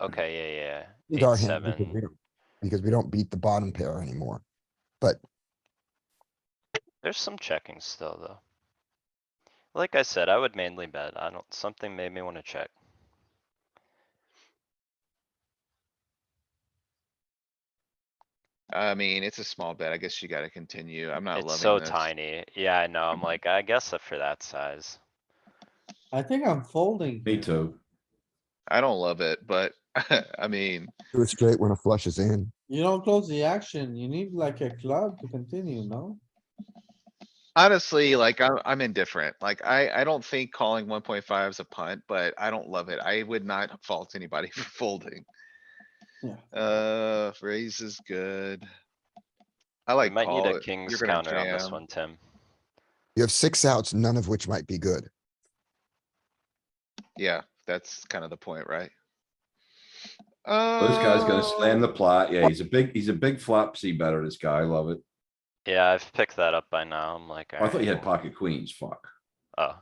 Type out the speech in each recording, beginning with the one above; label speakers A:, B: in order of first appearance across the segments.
A: Mm.
B: Okay, yeah,
C: These
B: yeah.
C: are
B: Eight,
C: hands we could
B: seven.
C: do, Because we don't beat the bottom pair anymore. But
B: There's some checking still, though. Like I said, I would mainly bet. I don't, something made me wanna check.
D: I mean, it's a small bet. I guess you gotta continue. I'm not
B: It's so
D: loving this.
B: tiny. Yeah, I know.
A: Mm-hmm.
B: I'm like, I guess that for that size.
E: I think I'm folding.
A: Me too.
D: I don't love it, but I mean,
C: it's great when a flush is in.
E: You don't close the action. You need like a club to continue, no?
D: honestly, like I'm, I'm indifferent. Like I, I don't think calling one point five is a punt, but I don't love it. I would not fault anybody for folding.
E: Yeah.
D: Uh, raise is good. I
B: We
D: like
B: might need
D: call
B: a
D: it.
B: king's
D: You're gonna
B: counter on this
D: jam.
B: one, Tim.
C: You have six outs, none of which might be good.
D: Yeah, that's kind of the point, right?
A: This guy's gonna slam the
D: Uh,
A: plot. Yeah, he's a big, he's a big flop C better, this guy. I love it.
B: Yeah, I've picked that up by now. I'm like,
A: I thought you had
B: alright,
A: pocket queens, fuck.
B: oh.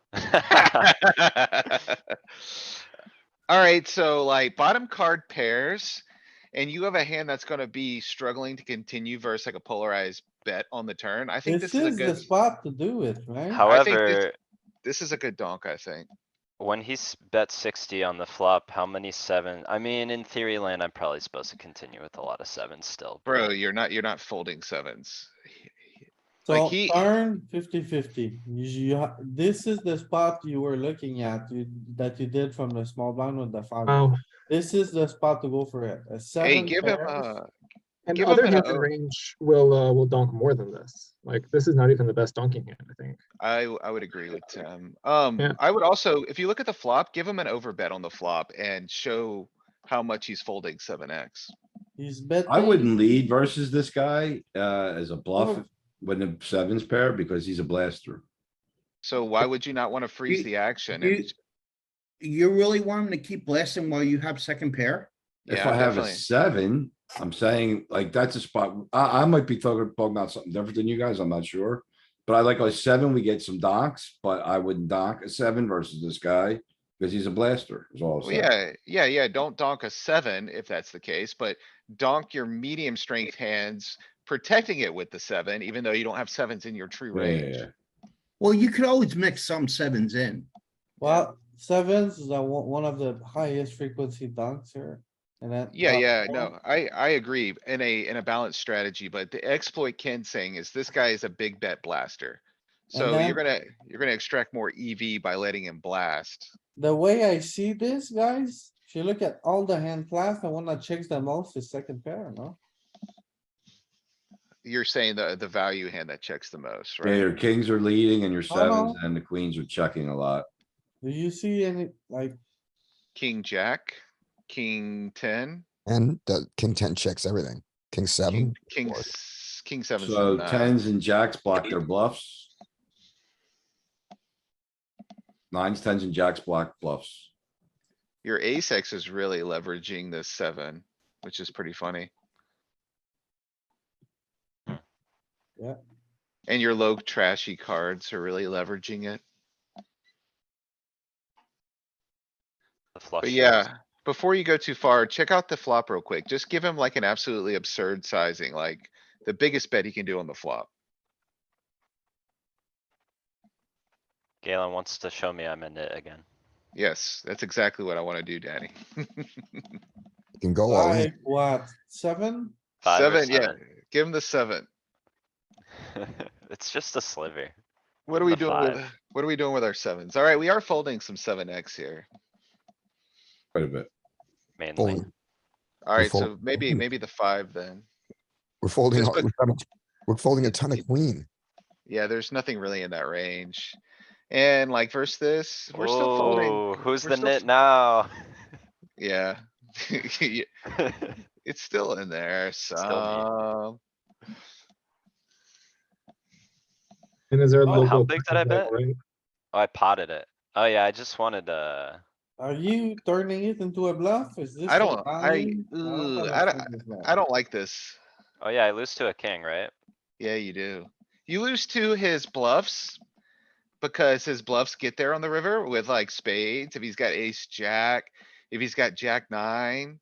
D: Alright, so like bottom card pairs. And you have a hand that's gonna be struggling to continue versus like a polarized bet on the turn. I think
E: This
D: this is a
E: is the
D: good,
E: spot to do it, right?
D: I think this-
B: However,
D: this is a good donk, I think.
B: when he's bet sixty on the flop, how many seven? I mean, in theory land, I'm probably supposed to continue with a lot of sevens still. but-
D: Bro, you're not, you're not folding sevens.
E: So
D: like he-
E: turn 50 50. You, you ha- this is the spot you were looking at, you, that you did from the small blind with the five.
F: Wow.
E: This is the spot to go for it. A
D: Hey,
E: seven
D: give him
E: pairs.
D: a,
F: And
D: Give him
F: other
D: an
F: hands in
D: O.
F: range will, uh, will donk more than this. Like, this is not even the best donking hand, I think.
D: I, w- I would agree with Tim. Um,
F: Yeah.
D: I would also, if you look at the flop, give him an overbet on the flop and show how much he's folding seven X.
E: He's betting.
A: I wouldn't lead versus this guy, uh, as a bluff when the sevens pair because he's a blaster.
D: So why would you not wanna freeze
G: You-
D: the action?
G: you-
D: and-
G: You really want him to keep blasting while you have second pair?
A: If
D: Yeah,
A: I have a
D: definitely.
A: seven, I'm saying like that's a spot. I, I might be talking, talking about something different than you guys. I'm not sure. But I like a seven, we get some docks, but I wouldn't dock a seven versus this guy because he's a blaster is all. I'm
D: Well,
A: saying.
D: yeah, yeah, yeah, don't donk a seven if that's the case, but donk your medium strength hands, protecting it with the seven, even though you don't have sevens in your true
A: Yeah, yeah,
D: range.
A: yeah.
G: Well, you could always mix some sevens in.
E: Well, sevens is the one one of the highest frequency dunks here. And that.
D: Yeah,
E: uh,
D: yeah, no, I, I agree in a, in a balanced strategy, but the exploit Ken's saying is this guy is a big bet blaster.
E: And
D: So
E: then-
D: you're gonna, you're gonna extract more EV by letting him blast.
E: The way I see this, guys, if you look at all the hand class, the one that checks the most is second pair, no?
D: You're saying the, the value hand that checks the most,
A: Yeah, your
D: right?
A: kings are leading and your
E: Oh, no.
A: sevens and the queens are checking a lot.
E: Do you see any, like,
D: King, jack, king ten,
C: And the king ten checks everything. King
D: king,
C: seven,
D: king,
C: Lord.
D: s- king seven.
A: So tens and jacks block their bluffs. Nines, tens and jacks block bluffs.
D: Your ace X is really leveraging this seven, which is pretty funny.
B: Hmm.
E: Yeah.
D: And your low trashy cards are really leveraging it.
B: The flush.
D: But
B: draws.
D: yeah, before you go too far, check out the flop real quick. Just give him like an absolutely absurd sizing, like the biggest bet he can do on the flop.
B: Galen wants to show me I'm in it again.
D: Yes, that's exactly what I wanna do, Danny.
C: you can go all in.
E: like, what, seven?
B: Five or
D: Seven, yeah, give him the seven.
B: It's just a sliver.
D: What are we
B: The
D: doing with,
B: five.
D: what are we doing with our sevens? Alright, we are folding some seven X here.
A: Quite a bit.
B: Mainly,
C: Fold.
D: Alright,
C: fold-
D: so maybe, maybe the five then.
C: We're folding,
D: Just
C: all- we're folding- we're folding a ton of queen.
D: Yeah, there's nothing really in that range. And like versus this, we're still
B: Ooh,
D: folding.
B: Who's
D: We're
B: the
D: still
B: nit
D: f-
B: now?
D: Yeah. Yeah, It's still in there, so.
F: And is there a
B: Oh,
F: little?
B: how
F: bit of
B: big did I
F: blackjack,
B: bet?
F: right?
B: Oh, I potted it. Oh yeah, I just wanted, uh,
E: Are you turning it into a bluff? Is this?
D: I
E: a
D: don't- I-
E: line?
D: ooh,
E: don't
D: I don't-
E: understand this one.
D: I don't like this.
B: oh yeah, I lose to a king, right?
D: Yeah, you do. You lose to his bluffs. Because his bluffs get there on the river with like spades, if he's got ace, jack, if he's got jack nine.